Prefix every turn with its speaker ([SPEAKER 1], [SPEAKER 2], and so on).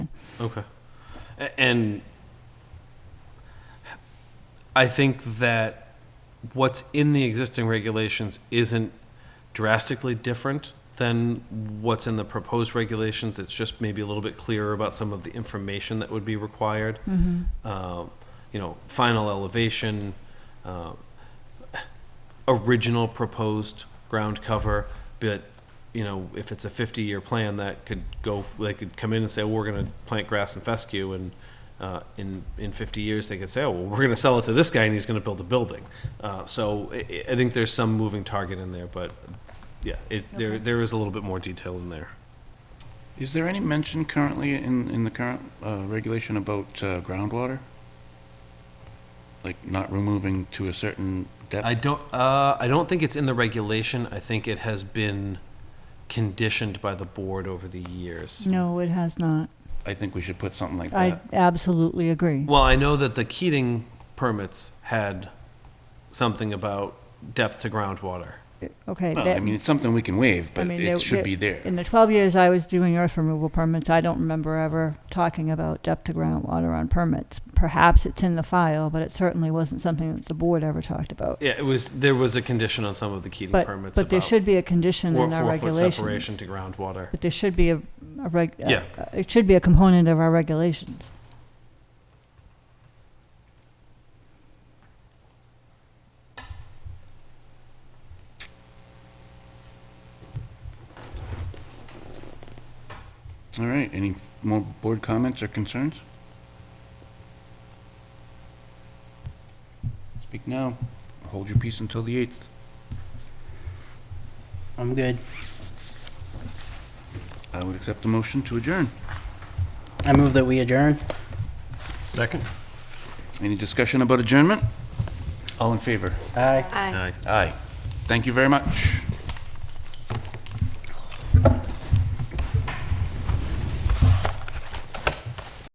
[SPEAKER 1] Okay. A- And I think that what's in the existing regulations isn't drastically different than what's in the proposed regulations. It's just maybe a little bit clearer about some of the information that would be required. Uh, You know, final elevation, uh, original proposed ground cover, but, you know, if it's a fifty-year plan, that could go, they could come in and say, well, we're gonna plant grass and fescue, and, uh, in, in fifty years, they could say, oh, well, we're gonna sell it to this guy, and he's gonna build a building. Uh, so, I, I think there's some moving target in there, but, yeah, it, there, there is a little bit more detail in there.
[SPEAKER 2] Is there any mention currently in, in the current uh, regulation about uh, groundwater? Like not removing to a certain
[SPEAKER 1] I
[SPEAKER 2] depth?
[SPEAKER 1] don't, uh, I don't think it's in the regulation, I think it has been conditioned by the board over the years.
[SPEAKER 3] No, it has not.
[SPEAKER 2] I think we should put something like
[SPEAKER 3] I
[SPEAKER 2] that.
[SPEAKER 3] absolutely agree.
[SPEAKER 1] Well, I know that the Keating permits had something about depth to groundwater.
[SPEAKER 3] Okay.
[SPEAKER 2] Well,
[SPEAKER 3] that-
[SPEAKER 2] I mean, it's something we can waive,
[SPEAKER 3] I
[SPEAKER 2] but
[SPEAKER 3] mean, there-
[SPEAKER 2] it should
[SPEAKER 3] there-
[SPEAKER 2] be there.
[SPEAKER 3] In the 12 years I was doing earth removal permits, I don't remember ever talking about depth to groundwater on permits. Perhaps it's in the file, but it certainly wasn't something that the board ever talked about.
[SPEAKER 1] Yeah, it was, there was a condition on some of the Keating
[SPEAKER 3] But,
[SPEAKER 1] permits
[SPEAKER 3] but there
[SPEAKER 1] about
[SPEAKER 3] should be a condition
[SPEAKER 1] four,
[SPEAKER 3] in our
[SPEAKER 1] four foot separation
[SPEAKER 3] regulations.
[SPEAKER 1] to groundwater.
[SPEAKER 3] But there should be a, a reg, a-
[SPEAKER 1] Yeah.
[SPEAKER 3] a- it should be a component of our regulations.
[SPEAKER 2] All right, any more board comments or concerns? Speak now, or hold your peace until the 8th.
[SPEAKER 4] I'm good.
[SPEAKER 2] I would accept the motion to adjourn.
[SPEAKER 4] I move that we adjourn.
[SPEAKER 1] Second?
[SPEAKER 2] Any discussion about adjournment? All in favor?
[SPEAKER 4] Aye.
[SPEAKER 5] Aye.
[SPEAKER 2] Aye. Thank you very much.